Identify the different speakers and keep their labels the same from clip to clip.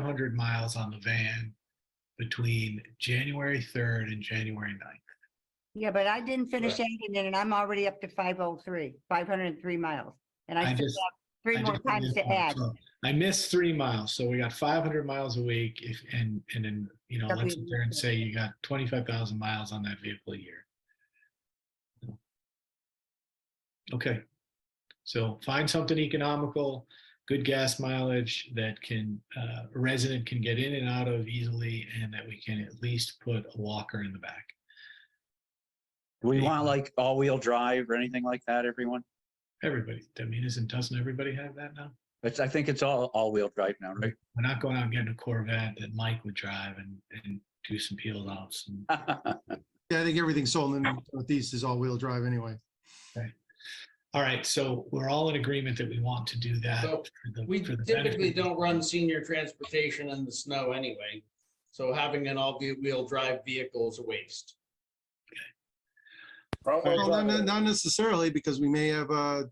Speaker 1: hundred miles on the van between January third and January 9th.
Speaker 2: Yeah, but I didn't finish editing it and I'm already up to five oh three, five hundred and three miles. And
Speaker 1: I
Speaker 2: I still
Speaker 1: just-
Speaker 2: have three
Speaker 1: I
Speaker 2: more
Speaker 1: just
Speaker 2: times
Speaker 1: missed
Speaker 2: to
Speaker 1: one.
Speaker 2: add.
Speaker 1: So I missed three miles, so we got five hundred miles a week if, and, and then, you know,
Speaker 2: That
Speaker 1: let's
Speaker 2: we-
Speaker 1: sit there and say you got twenty-five thousand miles on that vehicle a year. Okay, so find something economical, good gas mileage that can, uh, a resident can get in and out of easily and that we can at least put a walker in the back.
Speaker 3: Do we
Speaker 1: Yeah.
Speaker 3: want like all-wheel drive or anything like that, everyone?
Speaker 1: Everybody, I mean, isn't, doesn't everybody have that now?
Speaker 3: It's, I think it's all, all-wheel drive now, right?
Speaker 1: We're not going out and getting a Corvette that Mike would drive and, and do some peel offs and
Speaker 4: Ah.
Speaker 5: Yeah, I think everything sold in the Northeast is all-wheel drive anyway.
Speaker 1: All right, so we're all in agreement that we want to do that.
Speaker 4: So,
Speaker 1: for the-
Speaker 4: We
Speaker 1: for the
Speaker 4: typically
Speaker 1: benefit-
Speaker 4: don't run senior transportation in the snow anyway, so having an all-wheel drive vehicle is a waste.
Speaker 5: Well, not- Not not necessarily, because we may have a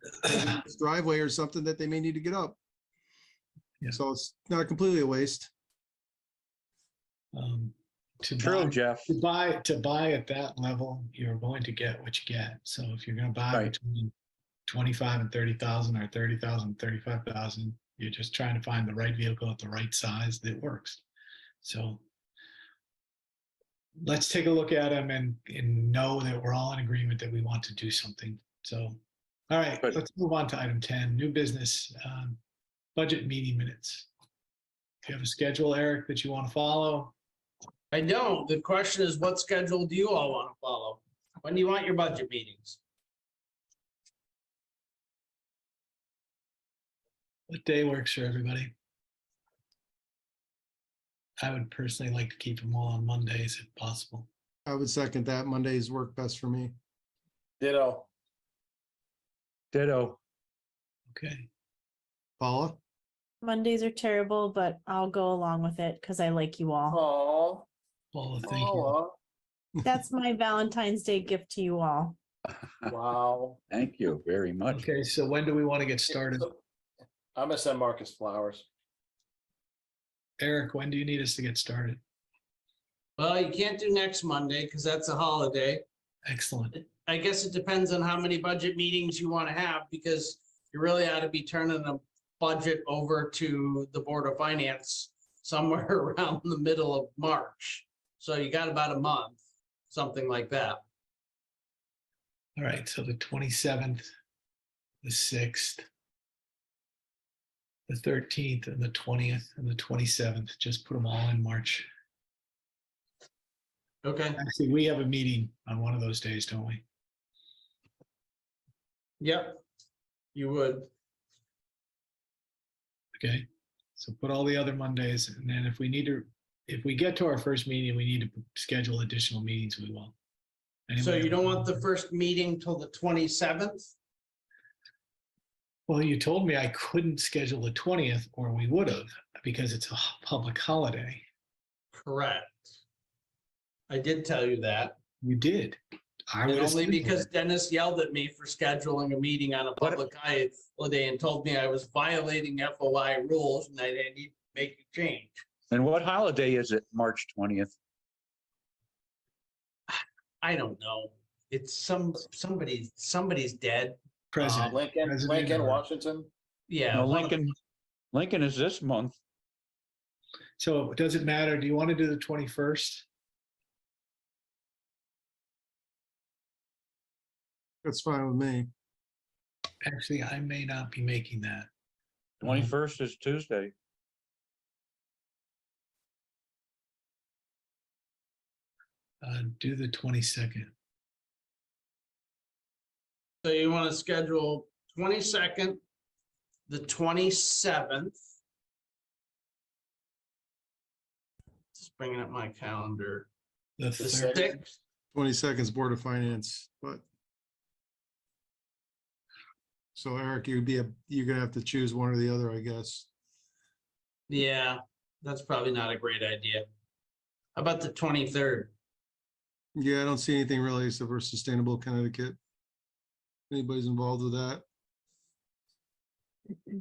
Speaker 5: driveway or something that they may need to get up.
Speaker 1: Yeah.
Speaker 5: So it's not completely a waste.
Speaker 1: Um, To
Speaker 3: True,
Speaker 1: buy,
Speaker 3: Jeff.
Speaker 1: to buy, to buy at that level, you're going to get what you get. So if you're gonna buy
Speaker 3: Right.
Speaker 1: between twenty-five and thirty thousand or thirty thousand, thirty-five thousand, you're just trying to find the right vehicle at the right size that works. So let's take a look at them and, and know that we're all in agreement that we want to do something. So, all right,
Speaker 3: Good.
Speaker 1: let's move on to item ten, new business, um, budget meeting minutes. Do you have a schedule, Eric, that you want to follow?
Speaker 4: I don't. The question is, what schedule do you all want to follow? When do you want your budget meetings?
Speaker 1: What day works for everybody? I would personally like to keep them all on Mondays if possible.
Speaker 5: I would second that. Mondays work best for me.
Speaker 6: Ditto.
Speaker 3: Ditto.
Speaker 1: Okay,
Speaker 5: Paula?
Speaker 7: Mondays are terrible, but I'll go along with it because I like you all.
Speaker 6: Oh.
Speaker 1: Paula, thank you.
Speaker 7: That's my Valentine's Day gift to you all.
Speaker 6: uh, Wow.
Speaker 3: Thank you very much.
Speaker 1: Okay, so when do we want to get started?
Speaker 6: I'm gonna send Marcus flowers.
Speaker 1: Eric, when do you need us to get started?
Speaker 4: Well, you can't do next Monday because that's a holiday.
Speaker 1: Excellent.
Speaker 4: I guess it depends on how many budget meetings you want to have because you really ought to be turning the budget over to the Board of Finance somewhere around the middle of March. So you got about a month, something like that.
Speaker 1: All right, so the twenty-seventh, the sixth, the thirteenth and the twentieth and the twenty-seventh, just put them all in March.
Speaker 4: Okay,
Speaker 1: Actually, we have a meeting on one of those days, don't we?
Speaker 4: yep, you would.
Speaker 1: Okay, so put all the other Mondays, and then if we need to, if we get to our first meeting, we need to schedule additional meetings, we will.
Speaker 4: So
Speaker 1: Anybody-
Speaker 4: you don't want the first meeting till the twenty-seventh?
Speaker 1: Well, you told me I couldn't schedule the twentieth, or we would have, because it's a h- public holiday.
Speaker 4: Correct. I did tell you that,
Speaker 1: You did. I
Speaker 4: and
Speaker 1: would
Speaker 4: only
Speaker 1: assume
Speaker 4: because uh,
Speaker 1: that.
Speaker 4: Dennis yelled at me for scheduling a meeting on a public holiday and told me I was violating FOI rules and I didn't need to make a change.
Speaker 3: And what holiday is it? March 20th?
Speaker 4: I don't know. It's some, somebody, somebody's dead.
Speaker 1: President,
Speaker 6: Lincoln,
Speaker 1: President
Speaker 6: Lincoln,
Speaker 1: or-
Speaker 6: Washington.
Speaker 4: Yeah.
Speaker 3: No,
Speaker 4: one of-
Speaker 3: Lincoln, Lincoln is this month.
Speaker 1: so does it matter? Do you want to do the twenty-first?
Speaker 5: That's fine with me.
Speaker 1: Actually, I may not be making that. Mm-hmm.
Speaker 3: 21st is Tuesday.
Speaker 1: Uh, do the twenty-second.
Speaker 4: So you want to schedule twenty-second, the twenty-seventh. Just bringing up my calendar.
Speaker 1: The
Speaker 4: The
Speaker 1: third,
Speaker 4: sixth,
Speaker 5: Twenty seconds Board of Finance, but. So Eric, you'd be, a- you're gonna have to choose one or the other, I guess.
Speaker 4: yeah, that's probably not a great idea. How About the twenty-third,
Speaker 5: Yeah, I don't see anything really so versus Sustainable Connecticut. Anybody's involved with that?